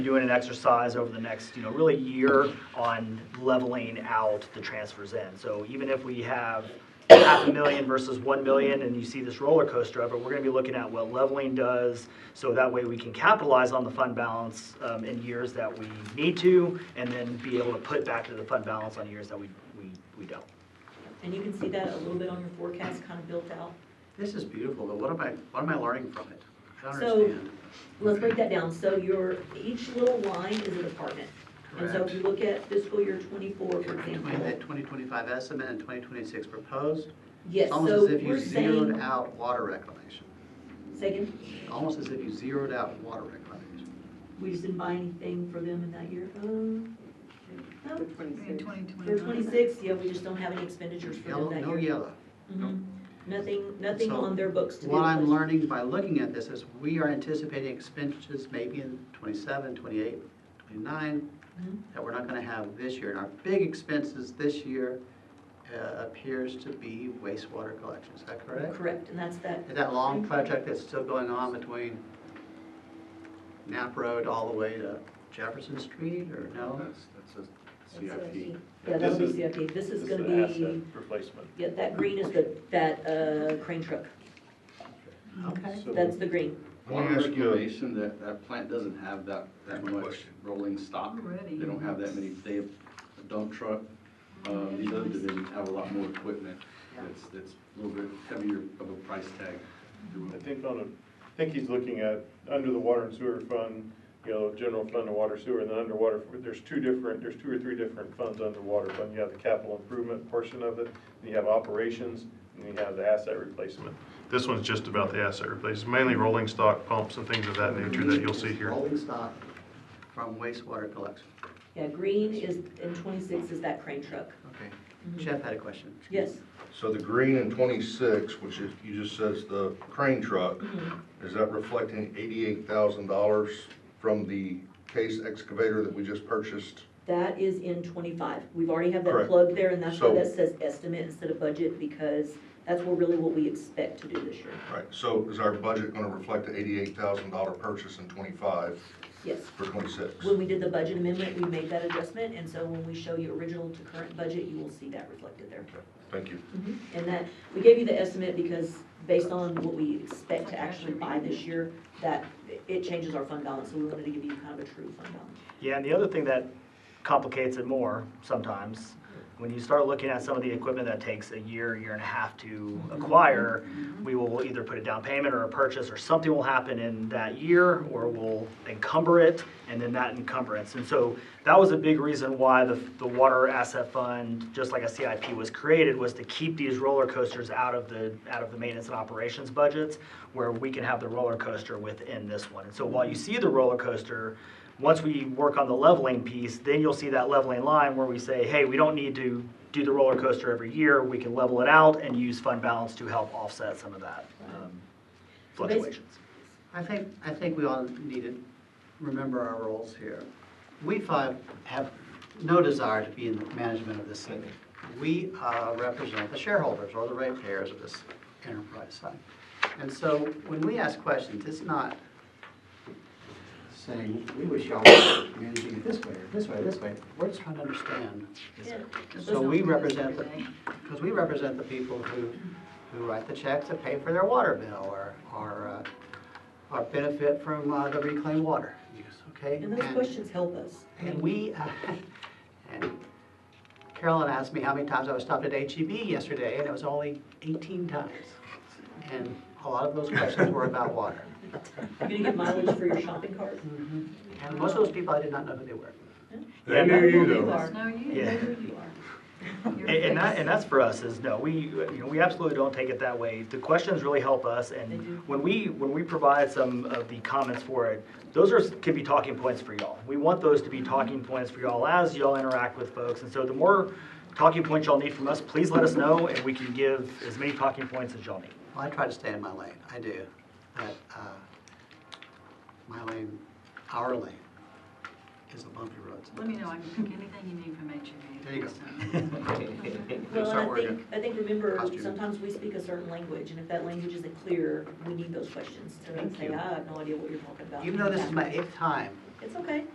doing an exercise over the next, you know, really year on leveling out the transfers in. So even if we have half a million versus 1 million, and you see this roller coaster of it, we're going to be looking at what leveling does, so that way we can capitalize on the fund balance um, in years that we need to, and then be able to put back to the fund balance on years that we, we we don't. And you can see that a little bit on your forecast, kind of built out. This is beautiful, but what am I, what am I learning from it? I don't So- understand. Let's break that down. So your, each little line is a department. And so if you look at fiscal year twenty-four, for Between example, that 2025 estimate and 2026 proposed, yes, it's almost so as if you we're zeroed saying, out water reclamation. second, Almost as if you zeroed out water reclamation. we just didn't buy anything for them in that year. Um, no, In 2021. For twenty-six, yeah, we just don't have any expenditures for them Yellow, that no year. yellow. Mhm. Nothing, nothing So on their books to be What I'm replaced. learning by looking at this is we are anticipating expenditures maybe in 27, 28, 29, Mhm. that we're not going to have this year. And our big expenses this year uh, appears to be wastewater collection, is that correct? Correct, and that's that, And That long project that's still going on between Knapp Road all the way to Jefferson Street, or no? That's, that's a CIP. yeah, that'll This be is- CIP. This is gonna an asset be, Replacement. yeah, that green is the, that, uh, crane truck. Okay. That's the green. Let me Water ask you, a- that, that plant doesn't have that, that much rolling stock. Already. They don't have that many, they have a dump truck. Um, these other divisions have a lot more equipment. Yeah. It's, it's a little bit heavier of a price tag. I think on a, I think he's looking at, under the water and sewer fund, you know, general fund and water sewer, and then underwater, there's two different, there's two or three different funds under water fund. You have the capital improvement portion of it, then you have operations, and you have the asset replacement. This one's just about the asset replacement, mainly rolling stock pumps and things of that nature that you'll see here. Rolling stock from wastewater collection. Yeah, green is, and twenty-six is that crane truck. Okay. Mhm. Jeff had a question. Yes, So the green in twenty-six, which is, you just says the crane truck, Mhm. is that reflecting eighty-eight thousand dollars from the case excavator that we just purchased? that is in twenty-five. We've already have that Correct. plug there, and that's why So- that says estimate instead of budget, because that's what really what we expect to do this year. Right, so is our budget gonna reflect the eighty-eight thousand dollar purchase in twenty-five Yes. for twenty-six? When we did the budget amendment, we made that adjustment, and so when we show you original to current budget, you will see that reflected there. Thank you. Mhm. And that, we gave you the estimate because based on what we expect to actually buy this year, that it changes our fund balance, so we wanted to give you kind of a true fund balance. Yeah, and the other thing that complicates it more sometimes, when you start looking at some of the equipment that takes a year, year and a half to acquire, we will either put a down payment or a purchase, or something will happen in that year, or we'll encumber it, and then that encumbrance. And so that was a big reason why the, the water asset fund, just like a CIP was created, was to keep these roller coasters out of the, out of the maintenance and operations budgets, where we can have the roller coaster within this one. And so while you see the roller coaster, once we work on the leveling piece, then you'll see that leveling line where we say, hey, we don't need to do the roller coaster every year. We can level it out and use fund balance to help offset some of that um, So basi- fluctuations. I think, I think we all need to remember our roles here. We five have no desire to be in the management of this city. We uh, represent the shareholders or the ratepayers of this enterprise fund. And so when we ask questions, it's not saying, we wish y'all were managing it this way, or this way, this way. We're just trying to understand. So we represent, because we represent the people who, who write the checks that pay for their water bill or, or, uh, or benefit from uh, the reclaimed water use, okay? And those questions help us. And we, uh, and Carolyn asked me how many times I was stopped at HEB yesterday, and it was only 18 times. And a lot of those questions were about water. You're gonna get mileage for your shopping cart? And most of those people, I did not know who they were. They knew you, though. No, you, Yeah. there you are. You're And, and that, fixed. and that's for us, is no, we, you know, we absolutely don't take it that way. The questions really help us, They and do. when we, when we provide some of the comments for it, those are, can be talking points for y'all. We want those to be talking points for y'all as y'all interact with folks, and so the more talking points y'all need from us, please let us know, and we can give as many talking points as y'all need. Well, I try to stay in my lane, I do. But uh, my lane, our lane, is the bumpy roads. Let me know, I can pick anything you need from H E There you go. Well, and Start I working. think, I think, remember, Costume. sometimes we speak a certain language, and if that language isn't clear, we need those questions to Thank say, you. I have no idea what you're talking about. Even though this is my eighth time It's okay.